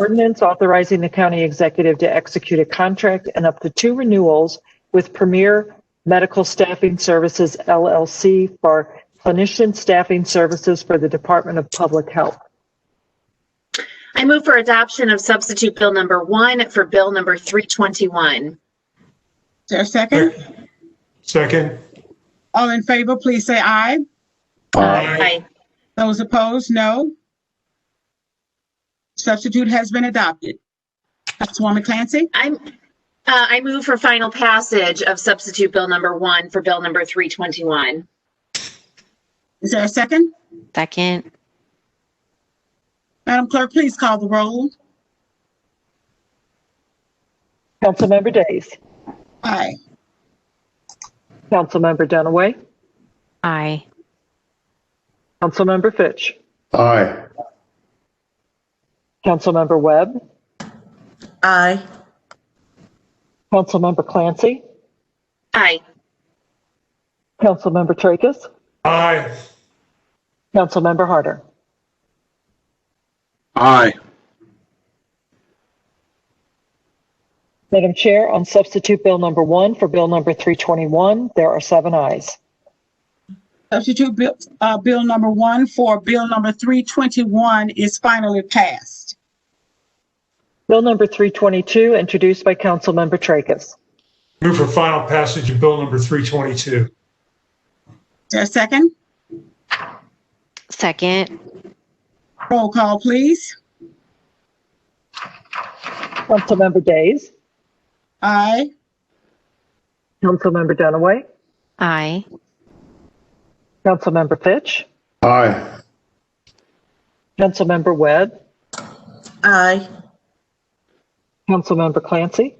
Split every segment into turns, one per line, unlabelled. Ordinance authorizing the county executive to execute a contract and up to two renewals with Premier Medical Staffing Services LLC for clinician staffing services for the Department of Public Health.
I move for adoption of substitute bill number one for bill number 321.
Is there a second?
Second.
All in favor, please say aye.
Aye.
Those opposed, no. Substitute has been adopted. Councilwoman Clancy,
I'm, uh, I move for final passage of substitute bill number one for bill number 321.
is there a second?
Second.
Madam Clerk, please call the roll.
Councilmember Days.
Aye.
Councilmember Dunaway.
Aye.
Councilmember Fitch.
Aye.
Councilmember Webb.
aye,
Councilmember Clancy.
Aye.
Councilmember Tracus.
Aye.
Councilmember Harder.
Aye.
Madam Chair, on substitute bill number one for bill number 321, there are seven ayes.
Substitute bill, uh, bill number one for bill number three twenty-one is finally passed.
Bill number 322, introduced by Councilmember Tracus.
Move for final passage of bill number 322.
Is there a second?
Second.
Roll call, please.
Councilmember Days.
Aye.
Councilmember Dunaway.
Aye.
Councilmember Fitch.
Aye.
Councilmember Webb.
aye,
Councilmember Clancy.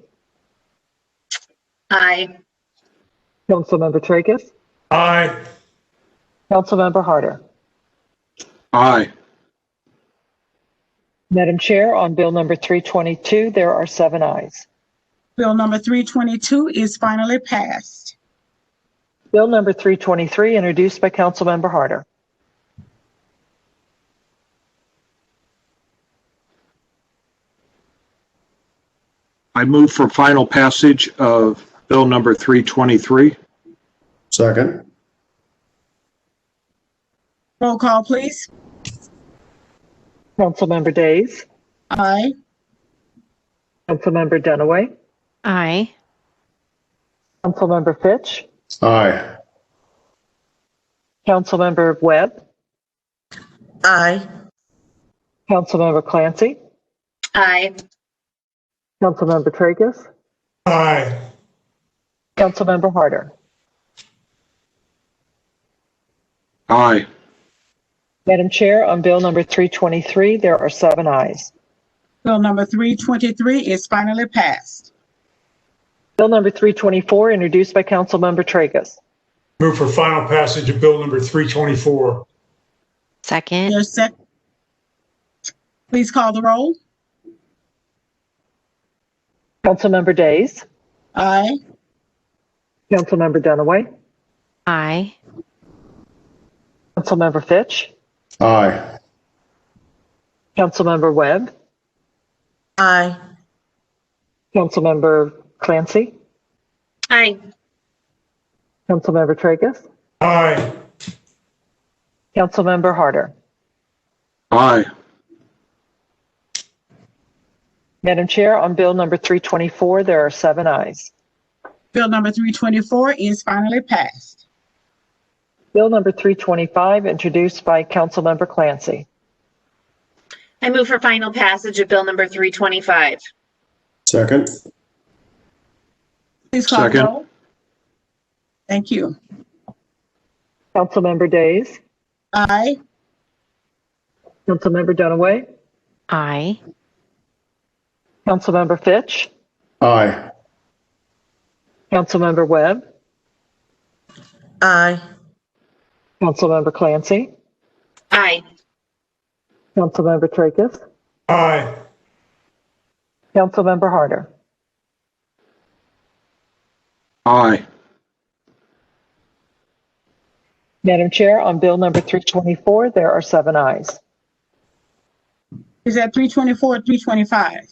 Aye.
Councilmember Tracus.
Aye.
Councilmember Harder.
Aye.
Madam Chair, on bill number 322, there are seven ayes.
Bill number three twenty-two is finally passed.
Bill number 323, introduced by Councilmember Harder.
I move for final passage of Bill number 323.
Second.
Roll call, please.
Councilmember Days.
Aye.
Councilmember Dunaway.
Aye.
Councilmember Fitch.
Aye.
Councilmember Webb.
aye,
Councilmember Clancy.
Aye.
Councilmember Tracus.
Aye.
Councilmember Harder.
Aye.
Madam Chair, on bill number 323, there are seven ayes.
Bill number three twenty-three is finally passed.
Bill number 324, introduced by Councilmember Tracus.
Move for final passage of bill number 324.
Second.
There's sec. Please call the roll.
Councilmember Days.
Aye.
Councilmember Dunaway.
Aye.
Councilmember Fitch.
Aye.
Councilmember Webb.
aye,
Councilmember Clancy.
Aye.
Councilmember Tracus.
Aye.
Councilmember Harder.
Aye.
Madam Chair, on bill number 324, there are seven ayes.
Bill number three twenty-four is finally passed.
Bill number 325, introduced by Councilmember Clancy.
I move for final passage of bill number 325.
Second.
Please call the
Second.
roll. Thank you.
Councilmember Days.
Aye.
Councilmember Dunaway.
Aye.
Councilmember Fitch.
Aye.
Councilmember Webb.
aye,
Councilmember Clancy.
Aye.
Councilmember Tracus.
Aye.
Councilmember Harder.
Aye.
Madam Chair, on bill number 324, there are seven ayes.
Is that three twenty-four, three twenty-five?